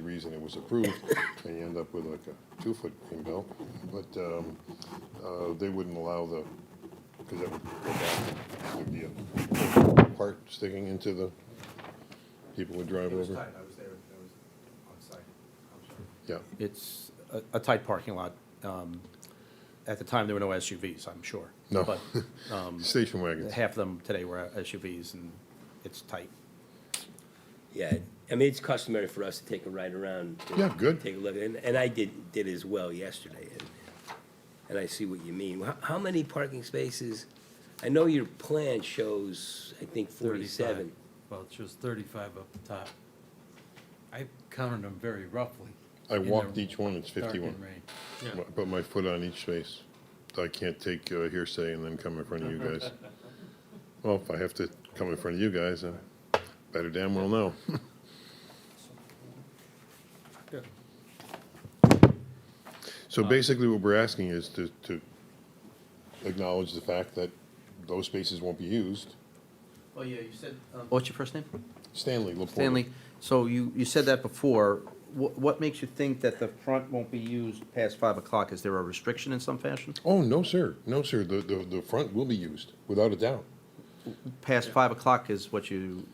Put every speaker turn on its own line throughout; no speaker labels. trees and it was approved, and you end up with like a two-foot green belt. But um, uh, they wouldn't allow the, because that would go back, would be a part sticking into the, people would drive
It was
over.
tight, I was there, I was on site, I'm sorry.
Yeah,
It's a- a tight parking lot. Um, At the time, there were no SUVs, I'm sure.
No.
But um,
station wagons.
half of them today were SUVs, and it's tight.
Yeah, I mean, it's customary for us to take a ride around. and
Yeah, good.
Take a look, and, and I did, did as well yesterday, and, and I see what you mean. How, how many parking spaces? I know your plan shows, I think,
35.
forty-seven.
Well, it shows 35 up top. I counted them very roughly.
I
in the
walked each one, it's fifty-one.
darkened range.
My- Put my foot on each space. I can't take uh, hearsay and then come in front of you guys. Well, if I have to come in front of you guys, I better damn well know. So basically, what we're asking is to, to acknowledge the fact that those spaces won't be used.
Oh,
Well, yeah, you said.
um,
What's your first name?
Stanley Laporte.
Stanley. So you, you said that before. What, what makes you think that the front won't be used past five o'clock? Is there a restriction in some fashion?
Oh, no, sir. No, sir. The, the, the front will be used, without a doubt.
Past five o'clock is what you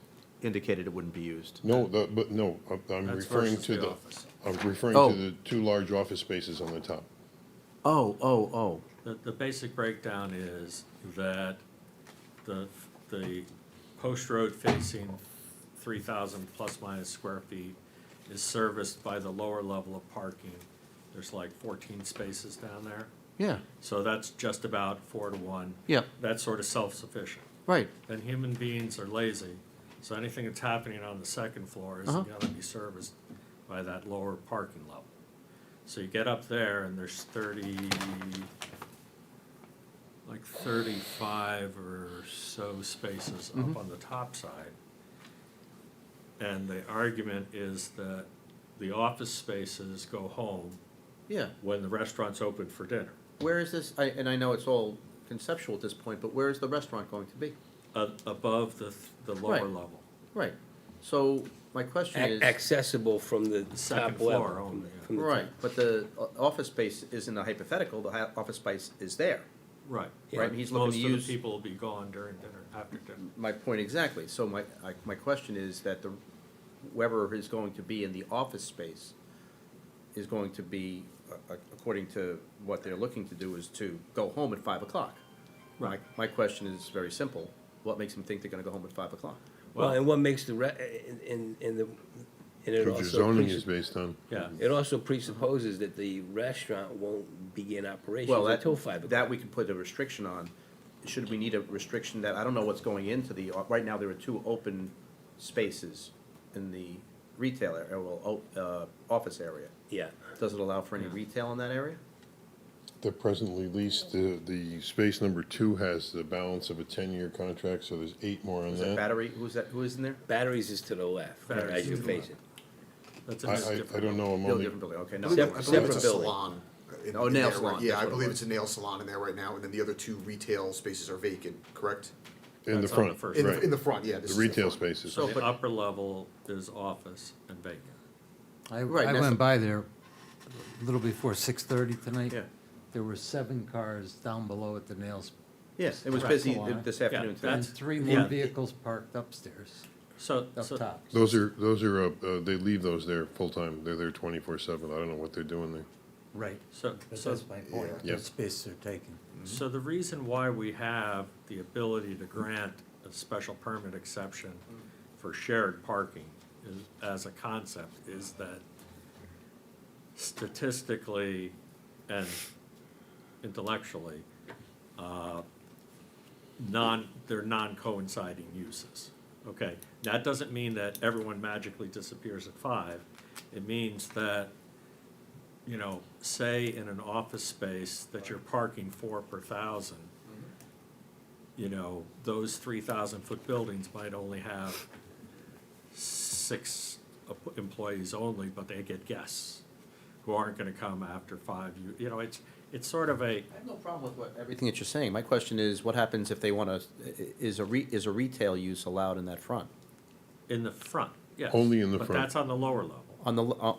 indicated it wouldn't be used.
No, the, but no, I'm- I'm
That's
referring
versus
to
the
the,
office.
I'm referring
Oh.
to the two large office spaces on the top.
Oh, oh, oh.
The, the basic breakdown is that the, the post road facing three thousand plus minus square feet is serviced by the lower level of parking. There's like fourteen spaces down there,
Yeah,
so that's just about four to one.
Yeah.
That's sort of self-sufficient.
right.
Then human beings are lazy, so anything that's happening on the second floor is
Uh-huh.
gonna be serviced by that lower parking level. So you get up there and there's thirty, like thirty-five or so spaces up on the top side. And the argument is that the office spaces go home
Yeah.
when the restaurant's open for dinner.
Where is this, I, and I know it's all conceptual at this point, but where is the restaurant going to be?
Uh, above the, th- the lower
Right.
level,
Right. So my question
A-
is.
Accessible from the
Second
top
floor
level.
only,
from- from
yeah.
the top.
Right, but the o- office space isn't a hypothetical, the hi- office space is there.
right.
Right, he's looking to
Most
use-
of the people will be gone during dinner, after dinner.
My point exactly, so my, I- my question is that the, whoever is going to be in the office space is going to be, a- a- according to what they're looking to do, is to go home at five o'clock. My,
Right.
my question is very simple, what makes them think they're gonna go home at five o'clock?
Well, and what makes the, re- and, and- and the, and it
Which your
also,
zoning is
presupp-
based on.
Yeah,
it also presupposes that the restaurant won't begin operations
Well, that,
until five o'clock.
that we can put a restriction on. Should we need a restriction that, I don't know what's going into the, uh, right now, there are two open spaces in the retail area, well, o- uh, office area.
Yeah,
Does it allow for any retail in that area?
They're presently leased, the, the space number two has the balance of a ten-year contract, so there's eight more on
Is that
that.
battery, who's that, who is in there?
batteries is to the left,
Batteries
as
is
you're
to the left.
facing.
that's
I,
a
I,
different.
I don't know, I'm
No,
only,
different building, okay, no.
Sep-
I believe it's a
separate building.
salon in-
Oh,
in
nail
there, right-
salon, that's
Yeah, I
what it
believe
was.
it's a nail salon in there right now, and then the other two retail spaces are vacant, correct?
in the
That's on the
front,
first
right.
In, the- in the front, yeah. this
The
is
retail
front.
spaces.
So-
The
but-
upper level is office and vacant.
I,
Right,
I
that's the-
went by there a little before 6:30 tonight.
Yeah.
There were seven cars down below at the nails,
Yes, it was
Correct.
busy
Salon.
this
Yeah,
afternoon today.
and
That's-
three
yeah.
more vehicles parked upstairs,
So,
up
so,
top.
Those are, those are, uh, uh, they leave those there full-time, they're there twenty-four-seven, I don't know what they're doing there.
Right,
so,
but
so,
that's my point,
Yeah.
those spaces are taken.
so the reason why we have the ability to grant a special permit exception for shared parking is, as a concept, is that statistically and intellectually, uh, non, they're non-coinciding uses, okay? That doesn't mean that everyone magically disappears at five. It means that, you know, say in an office space that you're parking four per thousand, you know, those three thousand foot buildings might only have six em- employees only, but they get guests who aren't gonna come after five, you, you know, it's, it's sort of a,
I have no problem with what. Everything that you're saying, my question is, what happens if they wanna, is a re, is a retail use allowed in that front?
In the front, yes.
Only in the
But
front.
that's on the lower level.
On the, l-